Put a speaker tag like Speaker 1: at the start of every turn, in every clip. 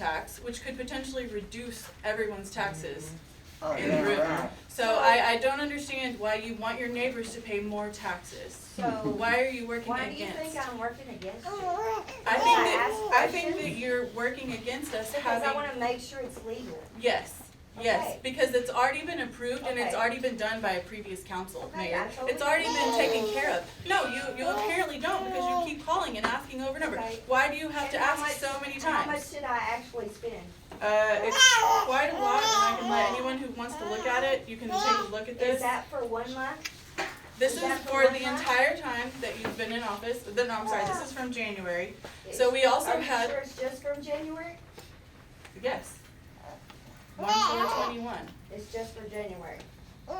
Speaker 1: tax, which could potentially reduce everyone's taxes.
Speaker 2: Oh,
Speaker 1: in
Speaker 2: yeah,
Speaker 1: Britain.
Speaker 2: right.
Speaker 1: So I, I don't understand why you want your neighbors to pay more taxes.
Speaker 3: So
Speaker 1: Why are you working
Speaker 3: why do you think
Speaker 1: against?
Speaker 3: I'm working against you?
Speaker 1: I think
Speaker 3: Oh, I
Speaker 1: that,
Speaker 3: ask
Speaker 1: I think that
Speaker 3: questions?
Speaker 1: you're working against us
Speaker 3: Because I
Speaker 1: having,
Speaker 3: wanna make sure it's legal.
Speaker 1: yes, yes,
Speaker 3: Okay.
Speaker 1: because it's already been approved and it's
Speaker 3: Okay.
Speaker 1: already been done by a previous council,
Speaker 3: Okay, I
Speaker 1: mayor.
Speaker 3: totally
Speaker 1: It's already been
Speaker 3: agree.
Speaker 1: taken care of. No, you, you apparently don't because you keep calling and asking over and over.
Speaker 3: Okay.
Speaker 1: Why do you have to
Speaker 3: And how
Speaker 1: ask so
Speaker 3: much-
Speaker 1: many times?
Speaker 3: How much did I actually spend?
Speaker 1: Uh, it's quite a lot, and I can let anyone who wants to look at it, you can take a look at
Speaker 3: Is
Speaker 1: this.
Speaker 3: that for one month?
Speaker 1: This is
Speaker 3: is that
Speaker 1: for
Speaker 3: the
Speaker 1: the
Speaker 3: one month?
Speaker 1: entire time that you've been in office, the- no, I'm sorry, this is from January. So
Speaker 3: Is-
Speaker 1: we also
Speaker 3: Are you
Speaker 1: had,
Speaker 3: sure it's just from January?
Speaker 1: yes. One four twenty-one.
Speaker 3: It's just for January?
Speaker 1: The,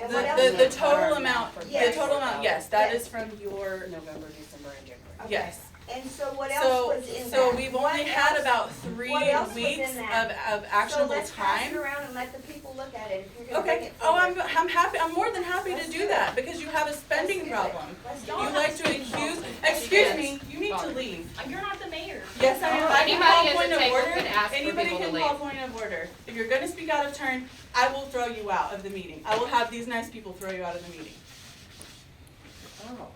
Speaker 3: And what else?
Speaker 1: the, the
Speaker 3: is-
Speaker 1: total amount, the
Speaker 3: Yes.
Speaker 1: total amount, yes, that
Speaker 3: Yes.
Speaker 1: is from your,
Speaker 4: November, December, and January.
Speaker 3: Okay.
Speaker 1: yes.
Speaker 3: And so what else
Speaker 1: So,
Speaker 3: was in that?
Speaker 1: so we've
Speaker 3: What
Speaker 1: only had
Speaker 3: else?
Speaker 1: about three
Speaker 3: what else was in
Speaker 1: weeks of,
Speaker 3: that?
Speaker 1: of actionable
Speaker 3: So let's pass it
Speaker 1: time.
Speaker 3: around and let the people look at it if you're gonna bring
Speaker 1: Okay,
Speaker 3: it
Speaker 1: oh,
Speaker 3: forward.
Speaker 1: I'm, I'm happy, I'm more than happy
Speaker 3: Let's
Speaker 1: to
Speaker 3: do
Speaker 1: do
Speaker 3: it.
Speaker 1: that, because you have a spending
Speaker 3: do it.
Speaker 1: problem.
Speaker 3: Let's do
Speaker 1: You
Speaker 3: it.
Speaker 1: like to accuse, excuse me, you need to leave.
Speaker 5: You're not the mayor.
Speaker 1: Yes, I am. I can
Speaker 6: Anybody
Speaker 1: call
Speaker 6: at the
Speaker 1: point of
Speaker 6: table
Speaker 1: order.
Speaker 6: can ask for
Speaker 1: Anybody
Speaker 6: people to
Speaker 1: can
Speaker 6: leave.
Speaker 1: call point of order. If you're gonna speak out of turn, I will throw you out of the meeting. I will have these nice people throw you out of the meeting.
Speaker 4: Oh.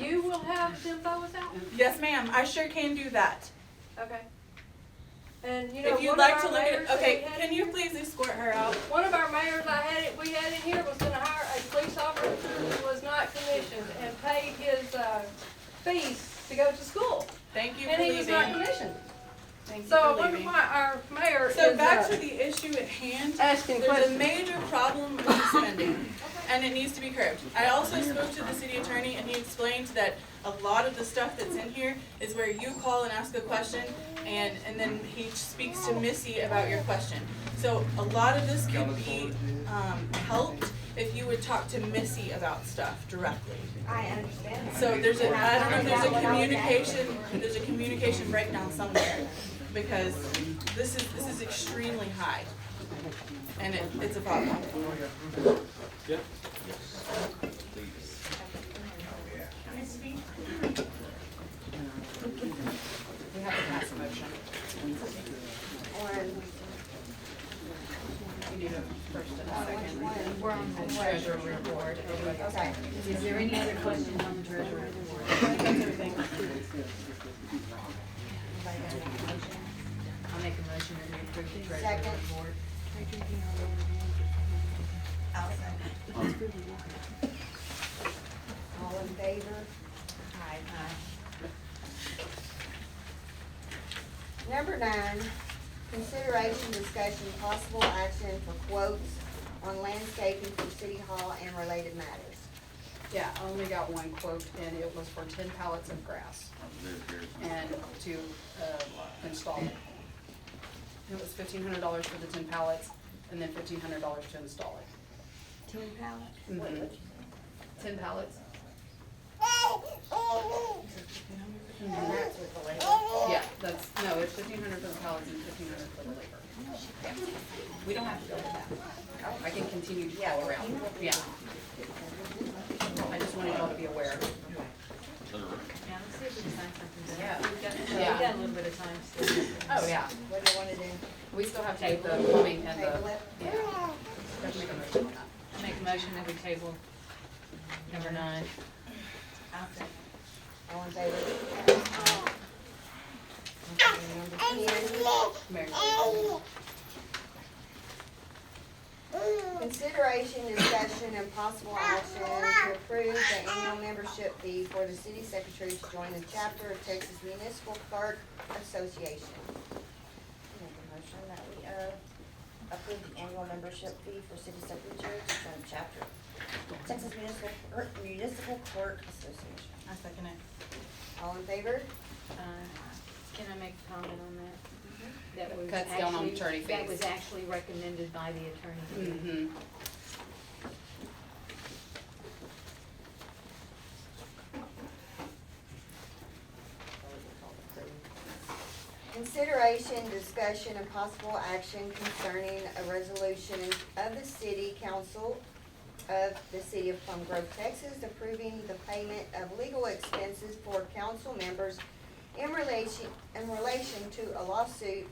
Speaker 6: You will have them both out?
Speaker 1: Yes, ma'am, I sure can do that.
Speaker 6: Okay. And you know,
Speaker 1: If
Speaker 6: one
Speaker 1: you'd
Speaker 6: of
Speaker 1: like to
Speaker 6: our
Speaker 1: look at,
Speaker 6: mayors that we
Speaker 1: okay,
Speaker 6: had
Speaker 1: can
Speaker 6: in
Speaker 1: you
Speaker 6: here-
Speaker 1: please escort her out?
Speaker 6: One of our mayors I had it, we had in here was gonna hire a police officer who was not commissioned and paid his, uh, fees to go to school.
Speaker 1: Thank you for
Speaker 6: And he was not
Speaker 1: leaving.
Speaker 6: commissioned.
Speaker 1: Thank you
Speaker 6: So I
Speaker 1: for
Speaker 6: wonder
Speaker 1: leaving.
Speaker 6: why our mayor is,
Speaker 1: So back to
Speaker 6: uh,
Speaker 1: the issue at hand.
Speaker 6: asking
Speaker 1: There's a
Speaker 6: questions.
Speaker 1: major problem with spending, and it needs to be curbed. I also spoke to the city attorney, and he explained that a lot of the stuff that's in here is where you call and ask a question, and, and then he speaks to Missy about your question. So a lot of this could be, um, helped if you would talk to Missy about stuff directly.
Speaker 3: I understand that.
Speaker 1: So there's a, I don't know, there's a communication, there's a communication breakdown somewhere, because this is, this is extremely high. And it, it's a problem.
Speaker 4: We have to pass a motion.
Speaker 3: Or-
Speaker 4: We need a first and a second.
Speaker 7: We're on the treasurer report.
Speaker 3: Okay.
Speaker 7: Is there any other questions on the treasurer report? I'll make a motion to approve the treasurer
Speaker 3: Second.
Speaker 7: report.
Speaker 3: All in favor? Aye. Number nine, consideration, discussion, possible action for quotes on landscaping for City Hall and related matters.
Speaker 4: Yeah, I only got one quote, and it was for ten pallets of grass and to uh, install it. It was fifteen hundred dollars for the ten pallets, and then fifteen hundred dollars to install it.
Speaker 3: Ten pallets?
Speaker 4: Mhm. Ten pallets?
Speaker 3: And that's with the labor.
Speaker 4: Yeah, that's, no, it's fifteen hundred for the pallets and fifteen hundred for the labor. Yeah. We don't have to go with that. I can continue to go around, yeah. I just wanted y'all to be aware.
Speaker 7: Yeah, let's see if we can find something to
Speaker 4: Yeah.
Speaker 7: We've got, we've
Speaker 4: Yeah.
Speaker 7: got a little bit of time still.
Speaker 4: Oh, yeah.
Speaker 3: What do you wanna do?
Speaker 4: We still have to take the plumbing and uh,
Speaker 3: Table
Speaker 4: the,
Speaker 3: it?
Speaker 4: yeah. Have to make a motion on that.
Speaker 7: I Make a motion that we table number nine.
Speaker 3: All in favor? Aye. Okay, Number
Speaker 4: Mayor.
Speaker 3: ten, consideration, discussion, and possible action to approve the annual membership fee for the city secretary to join the chapter of Texas Municipal Clerk Association.
Speaker 8: Make a motion that we, uh, approve the annual membership fee for city secretary to join chapter Texas Municipal, er, Municipal Clerk Association.
Speaker 1: I second it.
Speaker 3: All in favor?
Speaker 7: Uh, Can I make a comment on that? That was
Speaker 4: Cuts down on
Speaker 7: actually-
Speaker 4: attorney
Speaker 7: That
Speaker 4: fees.
Speaker 7: was actually recommended by the attorney.
Speaker 4: Mm-hmm.
Speaker 3: Consideration, discussion, and possible action concerning a resolution of the city council of the city of Plum Grove, Texas, approving the payment of legal expenses for council members in relation, in relation to a lawsuit